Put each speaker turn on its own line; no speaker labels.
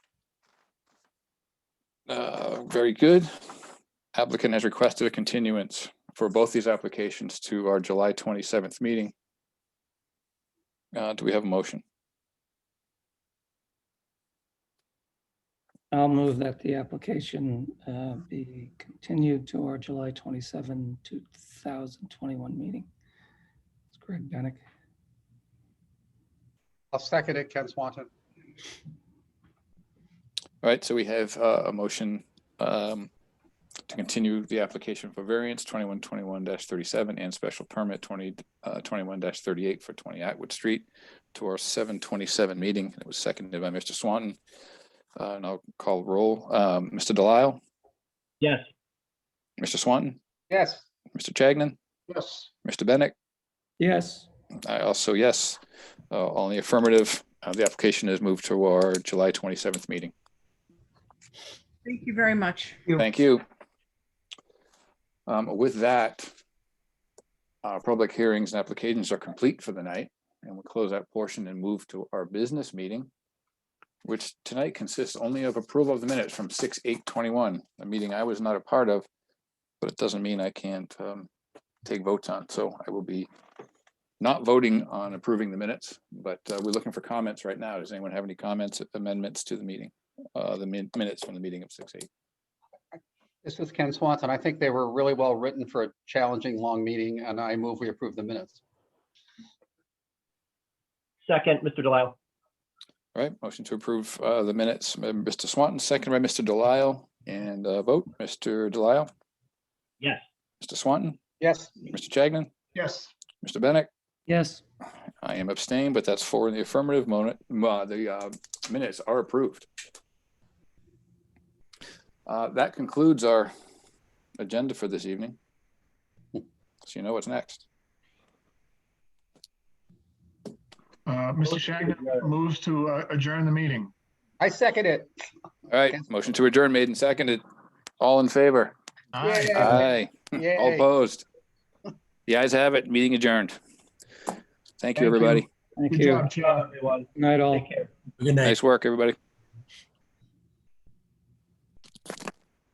Uh, Very good. Applicant has requested a continuance for both these applications to our July 27th meeting. Uh, Do we have a motion?
I'll move that the application uh, be continued to our July 27, 2021 meeting. It's Greg Benick.
I'll second it, Ken Swanton.
All right, so we have uh, a motion um, to continue the application for variance 2121-37 and special permit 20, uh, 21-38 for 20 Atwood Street to our 727 meeting. It was seconded by Mr. Swanton. Uh, And I'll call roll. Um, Mr. Delisle,
Yes.
Mr. Swanton,
Yes,
Mr. Chagnon,
yes,
Mr. Bennett,
Yes,
I also, yes, uh, all in the affirmative. Uh, The application is moved to our July 27th meeting.
Thank you very much.
Thank you. Um, With that, our public hearings and applications are complete for the night, and we'll close that portion and move to our business meeting, which tonight consists only of approval of the minutes from 6:821, a meeting I was not a part of, but it doesn't mean I can't um, take votes on, so I will be not voting on approving the minutes, but uh, we're looking for comments right now. Does anyone have any comments, amendments to the meeting, uh, the min- minutes from the meeting of 6:8?
this is Ken Swanton. I think they were really well written for a challenging, long meeting, and I move we approve the minutes.
Second, Mr. Delisle.
All right, motion to approve uh, the minutes, uh, Mr. Swanton, second by Mr. Delisle, and uh, vote, Mr. Delisle,
Yes.
Mr. Swanton,
Yes.
Mr. Chagnon,
Yes.
Mr. Bennett.
yes,
I am abstained, but that's four in the affirmative. Mona- uh, The uh, minutes are approved. Uh, That concludes our agenda for this evening. So you know what's next.
Uh, Mr. Shagnon moves to uh, adjourn the meeting.
I second it.
All right, motion to adjourn made and seconded. All in favor?
Aye.
Yay.
Aye. All
Yay.
opposed? The ayes have it. Meeting adjourned. Thank you,
you.
everybody.
thank
Good
you.
job, Chair.
everyone.
Night all.
Take care.
Nice work, everybody.